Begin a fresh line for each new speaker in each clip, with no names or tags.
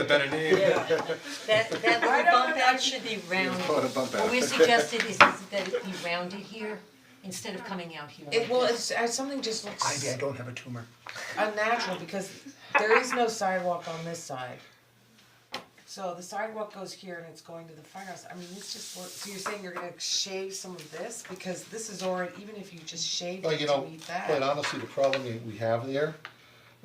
a better name.
That that little bump out should be rounded.
Call it a bump
What
out.
we suggested is is that it be rounded here instead of coming out here.
It well, it's uh, something just looks
Ivy, I don't have a tumor.
unnatural because there is no sidewalk on this side. So the sidewalk goes here and it's going to the firehouse. I mean, this just looks, so you're saying you're gonna shave some of this because this is already, even if you just shaved
Well,
it
you
to
know, uh,
meet
quite
that.
honestly, the problem that we have there,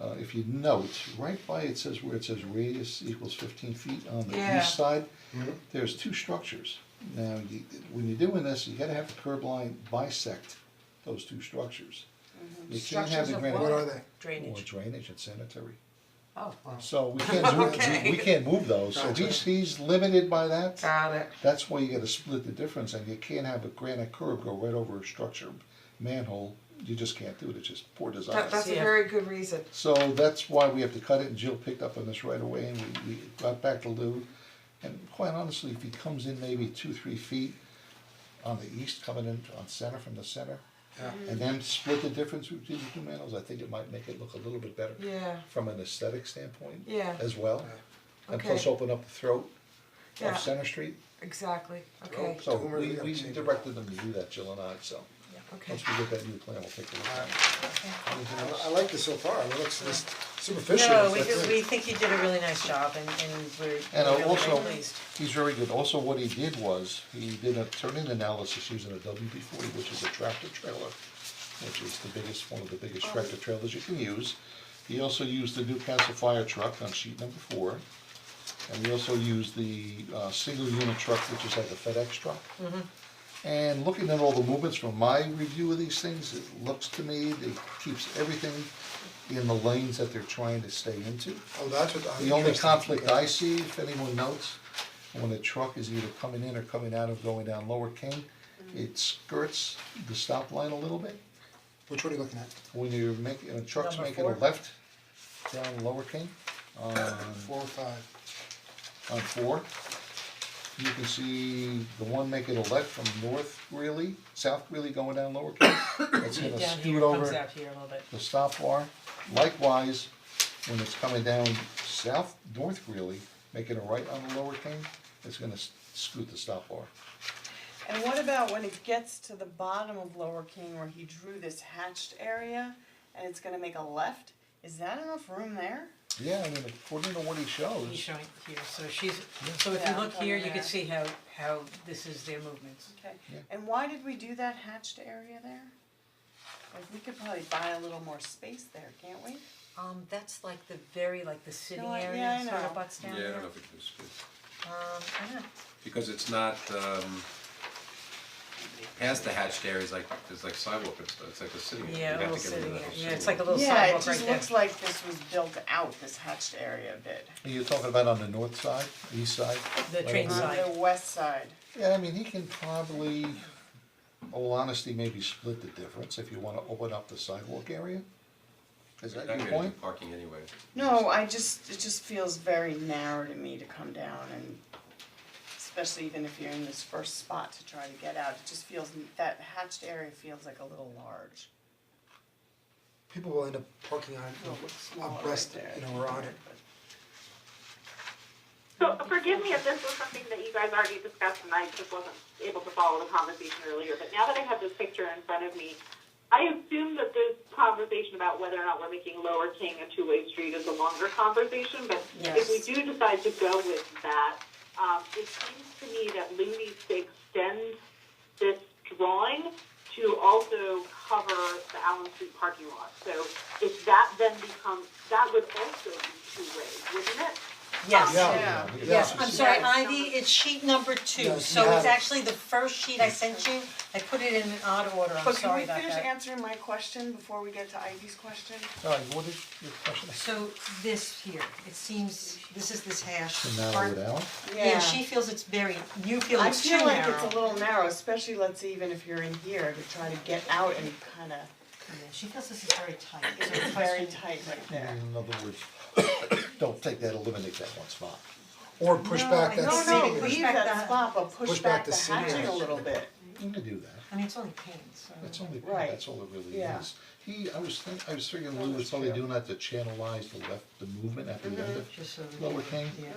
uh, if you note, right by it says where it says radius equals fifteen feet on the
Yeah.
east side,
Mm-hmm.
there's two structures. Now, you, when you're doing this, you gotta have the curb line bisect those two structures. You can't have
Mm-hmm. Structures
the
of
granite.
What are they?
Or
Drainage.
drainage and sanitary.
Oh, wow.
So we can't move, we can't move those, so
Gotcha.
he's, he's limited by that.
Got it.
That's why you gotta split the difference, and you can't have a granite curb go right over a structure manhole, you just can't do it, it's just poor design.
That that's a
Yeah.
very good reason.
So that's why we have to cut it, and Jill picked up on this right away, and we, we got back to Lou. And quite honestly, if he comes in maybe two, three feet on the east, coming in on center from the center, and then split the difference between the two manholes, I think it might make it look a little bit better
Yeah.
from an aesthetic standpoint
Yeah.
as well. And plus
Okay.
open up the throat
Yeah.
of Center Street.
Exactly. Okay.
Oh, So
Tumor,
we
yeah,
we
change it.
directed them to do that, Jill and I, so,
Okay.
once we get that new plan, we'll take a look at it.
I, I like this so far, it looks just superficial.
No, we
but
do,
then-
we think you did a really nice job and and we're
And
we're really
also,
very pleased.
he's very good, also what he did was, he did a turn-in analysis using a WB forty, which is a tractor trailer, which is the biggest, one of the biggest tractor trailers you can use. He also used the Newcastle fire truck on sheet number four, and he also used the uh single unit truck, which is like a FedEx truck. And looking at all the movements from my review of these things, it looks to me, it keeps everything in the lanes that they're trying to stay into.
Oh, that's what I'm
The only
interested in.
conflict I see, if anyone notes, when a truck is either coming in or coming out of going down Lower King,
Mm-hmm.
it skirts the stop line a little bit.
Which one are you looking at?
When you're making, a truck's
Number
making a
four.
left down Lower King on
Four or five?
on four. You can see the one making a left from North Greeley, South Greeley going down Lower King. It's gonna
Down here,
scoot
comes
over
out here a little bit.
the stop bar. Likewise, when it's coming down South, North Greeley, making a right on the Lower King, it's gonna s- scoot the stop bar.
And what about when it gets to the bottom of Lower King where he drew this hatched area and it's gonna make a left? Is that enough room there?
Yeah, I mean, according to what he
He's
shows,
showing here, so she's, so if you
Yeah,
look here, you
over
can
there.
see how how this is their movements.
Okay,
Yeah.
and why did we do that hatched area there? Like, we could probably buy a little more space there, can't we?
Um that's like the very, like the sitting
I- yeah,
area
I
sort
know.
of butts down
Yeah, I
there.
don't know if it was good,
Um, I don't know.
because it's not, um, past the hatched areas, like, there's like sidewalk and stuff, it's like a city, we
Yeah, a
have
little
to get rid
sitting
of that.
area,
whole
yeah, it's like
city.
a little
Yeah, it
sidewalk right there.
just looks like this was built out, this hatched area a bit,
you're talking about on the north side, east side?
The
right
train
over-
side.
on the west side.
Yeah, I mean, he can probably, all honesty, maybe split the difference if you wanna open up the sidewalk area. Is that
Not
your
gonna do
point?
parking anyway.
No, I just, it just feels very narrow to me to come down and especially even if you're in this first spot to try to get out, it just feels, that hatched area feels like a little large.
People will end up parking on,
It looks smaller
on
right
breast,
there.
you know, or on it.
So forgive me if this was something that you guys already discussed and I just wasn't able to follow the conversation earlier, but now that I have this picture in front of me, I assume that this conversation about whether or not we're making Lower King a two-way street is a longer conversation, but if we
Yes.
do decide to go with that, um, it seems to me that Lou needs to extend this drawing to also cover the Allen Street parking lot. So if that then becomes, that would also be two-way, wouldn't it?
Yes.
Yeah,
Yeah.
yeah.
I'm sorry, Ivy, it's sheet number two,
Yes,
so
you have
it's
it.
actually the first sheet I sent you, I put it in an odd order, I'm
But can
sorry
we
about
finish
that.
answering my question before we get to Ivy's question?
All right, what is your question?
So this here, it seems, this is this hash.
To narrow
part.
it out?
Yeah, she feels it's very, you feel
I
it's too
feel
narrow.
like it's a little narrow, especially let's say even if you're in here to try to get out and kinda,
Yeah, She feels this is very tight, so the
it's very
question-
tight right there.
In other words, don't take that, eliminate that one spot.
Or push back that
No,
That's
no,
sitting.
push
Leave
back
that-
that spot, but push back the
sitting
hatching a
area.
little bit.
You can do that,
I mean, it's only paint, so.
that's only,
Right.
that's all it really
Yeah.
is. He, I was think,
Mm-hmm.
I was figuring we were probably doing that to channelize the left, the movement after the end of
Just so that
Lower
they-
King.
yeah.